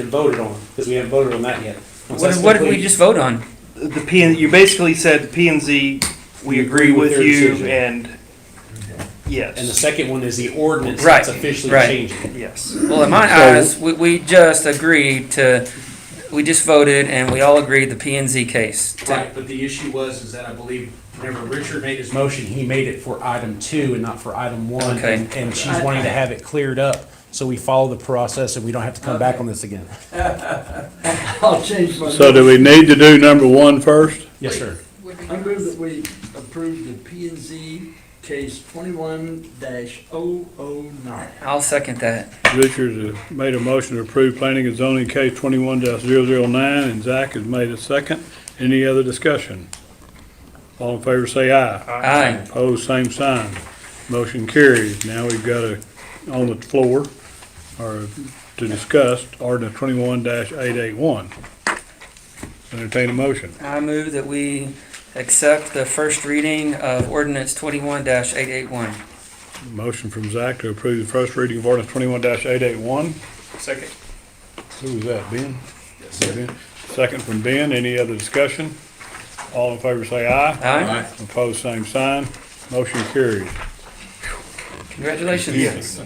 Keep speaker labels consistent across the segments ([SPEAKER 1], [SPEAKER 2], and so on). [SPEAKER 1] and voted on, because we haven't voted on that yet. Once
[SPEAKER 2] What,
[SPEAKER 1] that's
[SPEAKER 2] what did we
[SPEAKER 1] complete-
[SPEAKER 2] just vote on?
[SPEAKER 3] The P and, you basically said P and Z, we agree with
[SPEAKER 1] their
[SPEAKER 3] you
[SPEAKER 1] decision.
[SPEAKER 3] and,
[SPEAKER 1] And the
[SPEAKER 3] yes,
[SPEAKER 1] second one is the ordinance that's
[SPEAKER 2] Right,
[SPEAKER 1] officially
[SPEAKER 2] right.
[SPEAKER 1] changing.
[SPEAKER 3] yes.
[SPEAKER 2] Well, in my eyes, we, we just agreed to, we just voted and we all agreed the P and Z case. to-
[SPEAKER 1] Right, but the issue was, is that I believe whenever Richard made his motion, he made it for item two and not for item one.
[SPEAKER 2] Okay.
[SPEAKER 1] and- And she's wanting to have it cleared up, so we follow the process and we don't have to come back on this again.
[SPEAKER 4] I'll change my.
[SPEAKER 5] So do we need to do number one first?
[SPEAKER 1] Yes, sir.
[SPEAKER 4] I move that we approve the P and Z case twenty-one dash oh oh nine.
[SPEAKER 2] I'll second that.
[SPEAKER 5] Richards has made a motion to approve planning and zoning case twenty-one 9 and Zach has made a second. Any other discussion? All in favor say aye.
[SPEAKER 2] Aye.
[SPEAKER 5] Opposed, same sign. Motion carries. Now we've got a, on the floor, or to discuss, ordinance twenty-one eight eight one. Entertain a motion.
[SPEAKER 2] I move that we accept the first reading of ordinance twenty-one eight eight one.
[SPEAKER 5] Motion from Zach to approve the first reading of ordinance twenty-one eight eight one.
[SPEAKER 3] Second.
[SPEAKER 5] Who was that, Ben? Ben. Second from Ben, any other discussion? All in favor say aye.
[SPEAKER 2] Aye.
[SPEAKER 5] Opposed, same sign. Motion carries.
[SPEAKER 2] Congratulations.
[SPEAKER 3] Yes.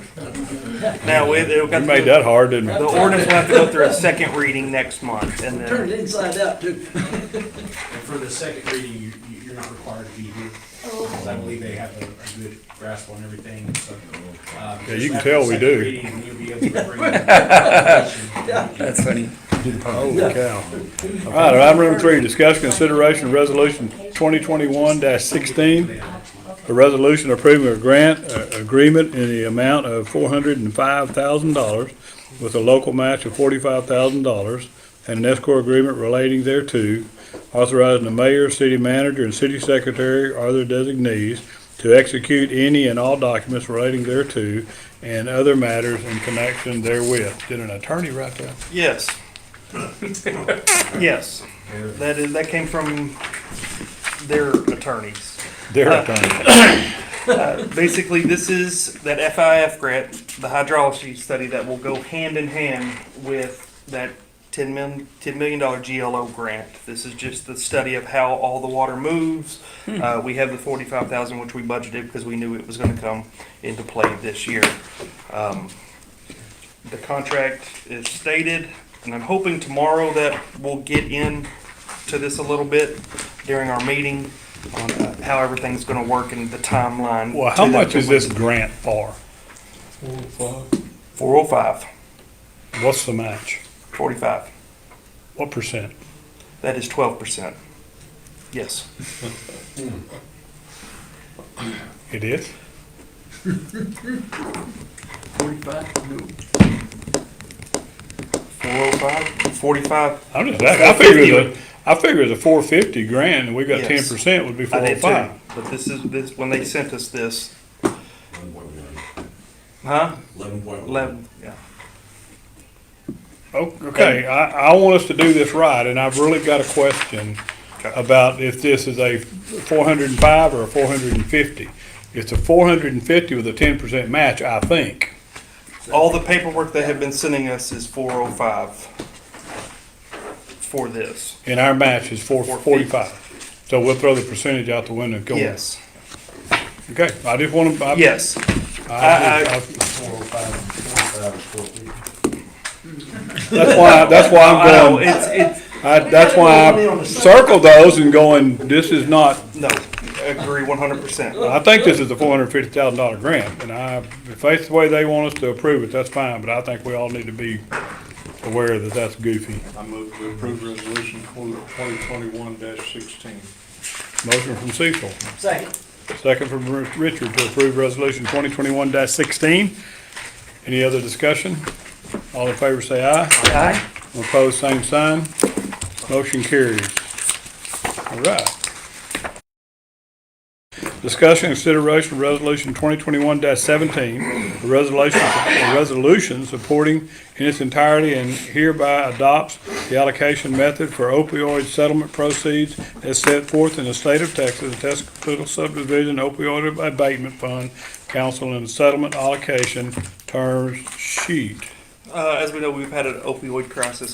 [SPEAKER 3] Now, we, it'll
[SPEAKER 5] We
[SPEAKER 3] come,
[SPEAKER 5] made
[SPEAKER 3] the
[SPEAKER 5] that hard, didn't we?
[SPEAKER 3] ordinance will have to go through a second reading next month and
[SPEAKER 4] Turn
[SPEAKER 3] then,
[SPEAKER 4] it inside out too.
[SPEAKER 1] And for the second reading, you, you- you're not required to be here, because I believe they have a, a good grasp on everything, so. uh,
[SPEAKER 5] Yeah, you
[SPEAKER 1] just
[SPEAKER 5] can
[SPEAKER 1] after
[SPEAKER 5] tell
[SPEAKER 1] the
[SPEAKER 5] we
[SPEAKER 1] second
[SPEAKER 5] do.
[SPEAKER 1] reading, You'll be able to bring. it.
[SPEAKER 2] That's funny.
[SPEAKER 5] Holy cow. All right, item number three, discussion consideration of resolution twenty twenty-one sixteen. A resolution approving a grant uh, agreement in the amount of four hundred and five thousand dollars with a local match of forty-five thousand dollars and an escrow agreement relating thereto, authorizing the mayor, city manager, and city secretary or their designees to execute any and all documents relating thereto and other matters in connection therewith. Did an attorney write that?
[SPEAKER 3] yes. Yes, that is, that came from their attorneys.
[SPEAKER 5] Their attorney.
[SPEAKER 3] Basically, this is that FIF grant, the hydrology study that will go hand in hand with that ten million, ten million dollar GLO grant. This is just the study of how all the water moves. Uh, we have the forty-five thousand, which we budgeted because we knew it was gonna come into play this year. Um, The contract is stated, and I'm hoping tomorrow that we'll get in to this a little bit during our meeting on uh, how everything's gonna work and the timeline.
[SPEAKER 5] Well, how much is this grant for?
[SPEAKER 3] Four oh five,
[SPEAKER 5] What's the match?
[SPEAKER 3] forty-five.
[SPEAKER 5] What percent?
[SPEAKER 3] That is twelve percent. Yes.
[SPEAKER 5] It is?
[SPEAKER 4] Forty-five, no.
[SPEAKER 3] Four oh five, forty-five.
[SPEAKER 5] I'm just, I I figure the, I figure the four fifty grand, and we got ten
[SPEAKER 3] Yes.
[SPEAKER 5] percent would be four
[SPEAKER 3] I
[SPEAKER 5] oh
[SPEAKER 3] did
[SPEAKER 5] five.
[SPEAKER 3] too. But this is, this, when they sent us this, huh?
[SPEAKER 6] Eleven point one.
[SPEAKER 3] Eleven, yeah.
[SPEAKER 5] O- Okay, I, I want us to do this right, and I've really got a question
[SPEAKER 3] Okay.
[SPEAKER 5] about if this is a four hundred and five or a four hundred and fifty. It's a four hundred and fifty with a ten percent match, I think.
[SPEAKER 3] All the paperwork they have been sending us is four oh five for this.
[SPEAKER 5] And our match is four,
[SPEAKER 3] Four fifty.
[SPEAKER 5] forty-five. So we'll throw the percentage out the window and go. on.
[SPEAKER 3] Yes,
[SPEAKER 5] Okay, I just wanna, I,
[SPEAKER 3] yes. I-
[SPEAKER 5] I,
[SPEAKER 3] I-
[SPEAKER 5] I,
[SPEAKER 6] Four oh five, four oh five, four fifty.
[SPEAKER 5] That's why, that's why
[SPEAKER 3] I know,
[SPEAKER 5] I'm going,
[SPEAKER 3] it's, it's,
[SPEAKER 5] I, that's why I circled those and going, this is not,
[SPEAKER 3] no, agree one hundred percent. Uh,
[SPEAKER 5] I think this is a four hundred and fifty thousand dollar grant, and I, if that's the way they want us to approve it, that's fine, but I think we all need to be aware that that's goofy.
[SPEAKER 7] I move to approve resolution twenty twenty-one sixteen.
[SPEAKER 5] Motion from Cecil,
[SPEAKER 4] Second.
[SPEAKER 5] second from Ri- Richard to approve resolution twenty twenty-one sixteen. Any other discussion? All in favor say aye.
[SPEAKER 2] Aye.
[SPEAKER 5] Opposed, same sign. Motion carries. All right. Discussion and consideration of resolution twenty twenty-one seventeen, a resolution, a resolution supporting in its entirety and hereby adopts the allocation method for opioid settlement proceeds as set forth in the state of Texas, the Tuscaloosa subdivision opioid abatement fund, council and settlement allocation terms sheet.
[SPEAKER 3] uh, as we know, we've had an opioid crisis